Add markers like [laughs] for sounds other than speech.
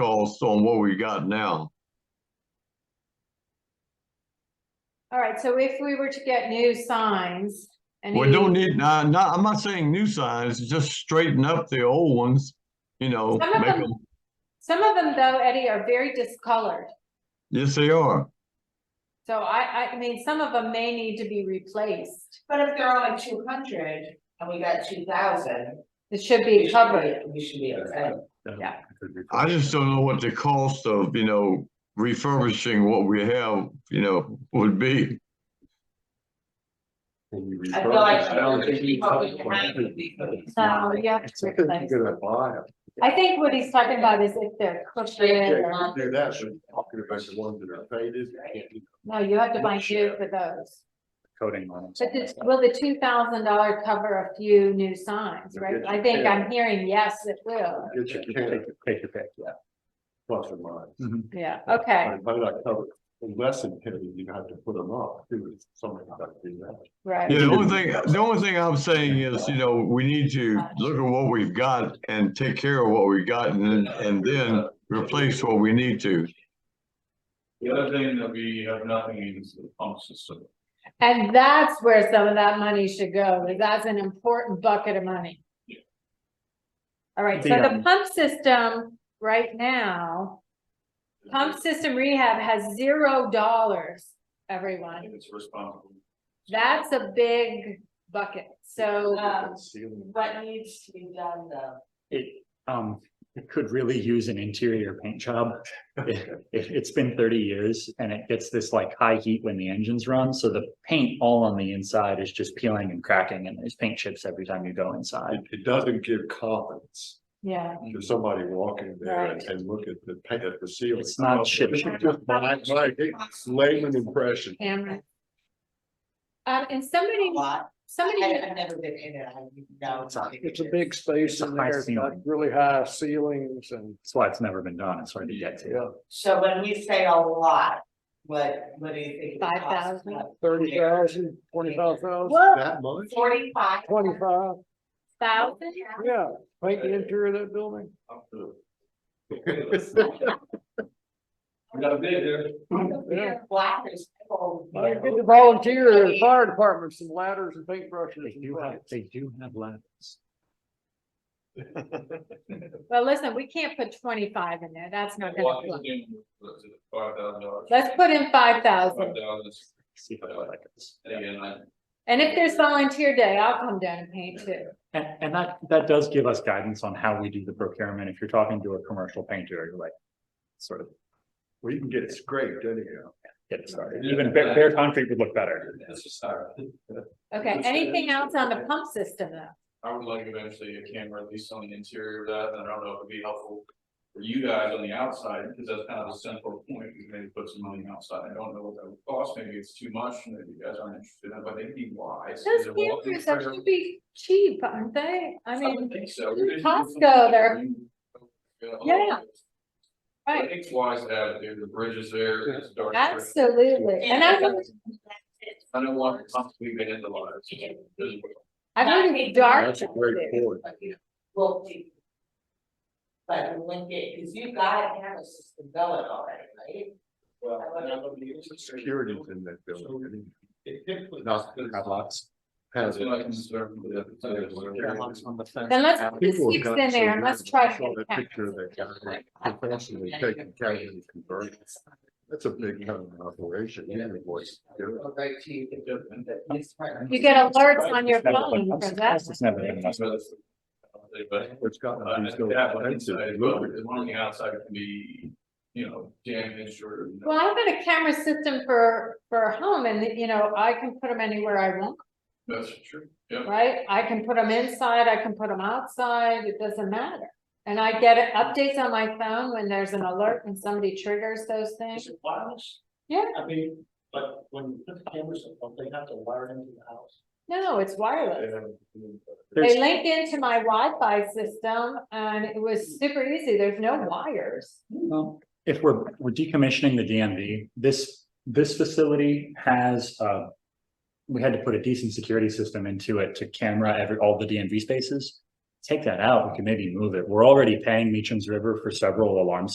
cost on what we got now. All right, so if we were to get new signs and. We don't need, nah, nah, I'm not saying new signs, just straighten up the old ones, you know, Some of make them- them, Some of them though, Eddie, are very discolored. yes, they are. So I, I, I mean, some of them may need to be replaced. But if they're only two hundred and we got two thousand. It should be covered. We should be okay. Yeah. I just don't know what the cost of, you know, refurbishing what we have, you know, would be. I feel like. Probably behind would be good. So you have to replace. I think what he's talking about is if they're crooked or, Do that, so talking about the ones that are faded, can't do no, you have to buy new for those. Coating on But this, will the two thousand dollar cover a few new signs, right? I think I'm hearing yes, it will. get your candy Take your pick, yeah. plus or minus. Yeah, okay, But I covered, less than ten, you have to put them up, too, if somebody got to do that. right. Yeah, the only thing, the only thing I'm saying is, you know, we need to look at what we've got and take care of what we got and, then- and then replace what we need to. The other thing that we have nothing in is the pump system. And that's where some of that money should go, because that's an important bucket of money. All right, so The, the um, pump system right now, pump system rehab has zero dollars, everyone. It's responsible. That's a big bucket, so, Um, Ceiling. What needs to be done though? It, um, it could really use an interior paint job. It, it's been thirty years and it gets this like high heat when the engines run, so the paint all on the inside is just peeling and cracking and there's paint chips every time you go inside. It, it doesn't give confidence yeah. to somebody walking there and, Right. and look at the, pa- at the ceiling. It's not shit. This is just my, my layman impression. Cameron. Um, and somebody, Lot. somebody, I- I've never been in it, I don't know. It's a- It's a big space It's a in high there, it's got ceiling. really high ceilings [laughs] and, That's why it's never been done. It's hard to get to. yeah, So when we say a lot, what, what do you think? it costs? 5,000? thirty thousand, twenty-five thousand, whoa, That much? Forty-five? twenty-five, thousand? yeah, paint the interior of that building. up to- We got a bid here. [laughs] Yeah, Black is. cold, you Get know. the volunteer, the fire department, some ladders and paintbrushes. They do have, and- they do have ladders. Well, listen, we can't put twenty-five in there, that's not Why gonna is work. it in- is it Five thousand dollars. Let's put in five Five thousand, thousand, See if I like it. and again, I, and if there's volunteer day, I'll come down and paint too. And, and that, that does give us guidance on how we do the procurement. If you're talking to a commercial painter, you're like, sort of Well, you can get scraped anyhow. get started. Even bare, bare concrete would look better. that's just, our- Okay, Understood. anything else on the pump system though? I would like eventually a camera, at least on the interior of that, and I don't know if it'd be helpful for you guys on the outside, because that's kind of the central point, we maybe put some money outside, I don't know what that would cost, maybe it's too much, maybe you guys aren't interested in it, but they'd be wise. Those They're walking cameras are trail. should be cheap, aren't they? I I mean, would think so. in Costco, they're- Yeah. I right, think it's wise to have, dude, the bridges there, it's dark. absolutely, and I, would- I don't want to constantly be in the lights. I heard it's dark. That's a great too. point. But you will be- But when it, cause you gotta have a system going already, right? Security's in that building. Not have lots. Has So I it. can serve with the- Yeah, lots on the Then let's put the Uh, People have six got in so there and let's nervous. try I to saw get that it Picture of that guy professionally taking care of the conversion. That's a big kind of operation, yeah, it was. Right to you. It's part of- You get alerts on your phone for that. It's never been enough. But, It's got. uh, these little that one places, inside, look but at the it. one on the outside can be, you know, damaged or. you know, Well, I've got a camera system for, for home and, you know, I can put them anywhere I want, That's true, yeah. right? I can put them inside, I can put them outside, it doesn't matter. And I get updates on my phone when there's an alert and somebody triggers those things. Is it wireless? Yeah. I mean, but when you put the cameras up, don't they have to wire it into the house? No, it's wireless. There's- They link into my Wi-Fi system and it was super easy. There's no wires. Well, If we're, we're decommissioning the DMV, this, this facility has, uh. We had to put a decent security system into it to camera every, all the DMV spaces. Take that out, we can maybe move it. We're already paying Meacham's River for several alarm